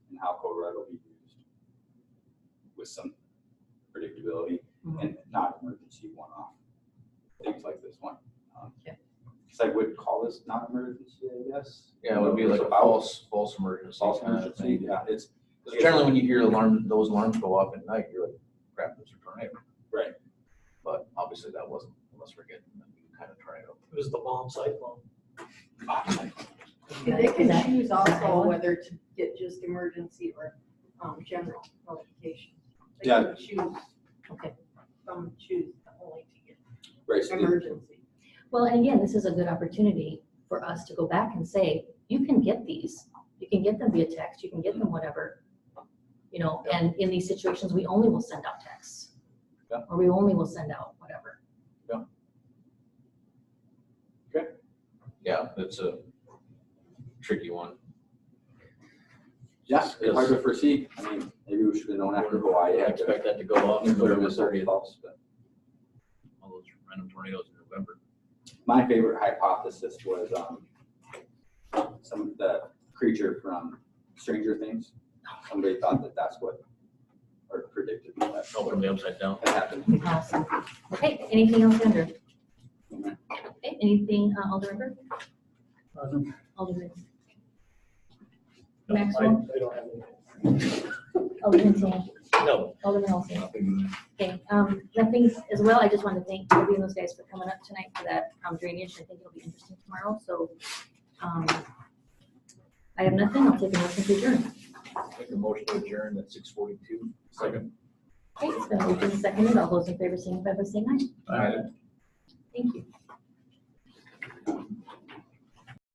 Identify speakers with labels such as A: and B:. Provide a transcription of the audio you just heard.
A: override will be used with some predictability
B: Mhm.
A: and not emergency one-off things like this one.
B: Yeah.
A: Because I would call this non-emergency, I guess.
C: Yeah, it would be
A: It's
C: like a
A: about-
C: false, false emergency
A: False
C: kind of
A: emergency,
C: thing.
A: yeah, it's.
C: 'Cause Generally, when you hear alarm, those alarms go off at night, you're like, crap, there's a tornado.
A: Right.
C: But obviously that wasn't, unless we're getting that kind of tornado.
D: It was the bomb cyclone.
E: And They can choose also whether to get just emergency or um, general notification. They can Choose, okay, some choose only to
A: Right,
E: get
A: so the-
E: emergency.
F: Well, and again, this is a good opportunity for us to go back and say, you can get these. You can get them via text, you can get them whatever. You know, and in these situations, we only will send out texts.
C: Yeah.
F: Or we only will send out whatever.
C: Yeah, it's a tricky one.
A: yeah, if I could foresee, I mean, maybe we should have known after Hawaii. had
C: I
A: the
C: expect that to go off
A: Nuclear
C: November
A: missile
C: thirtieth,
A: false, but
C: all those random tornadoes in November.
A: my favorite hypothesis was, um, some of the creature from Stranger Things. Somebody thought that that's what, or predicted that
C: Oh, from the upside down.
A: had happened.
F: Awesome. Okay, anything else, Andrew?
A: Mhm.
F: Okay, anything, uh, Alder River? Alderman,
D: No, I-
F: Maxwell?
D: I don't have any.
F: Alderman Teen,
C: No.
F: Alderman Olson?
C: nothing.
F: Okay, um, nothing as well. I just want to thank Toby and those guys for coming up tonight for that um, drainage. I think it'll be interesting tomorrow, so, um, I have nothing. I'll take a motion to adjourn.
C: Make a motion to adjourn at six forty-two. Second.
F: Okay, it's been moved and seconded. All those in favor signify by saying aye. Thank you.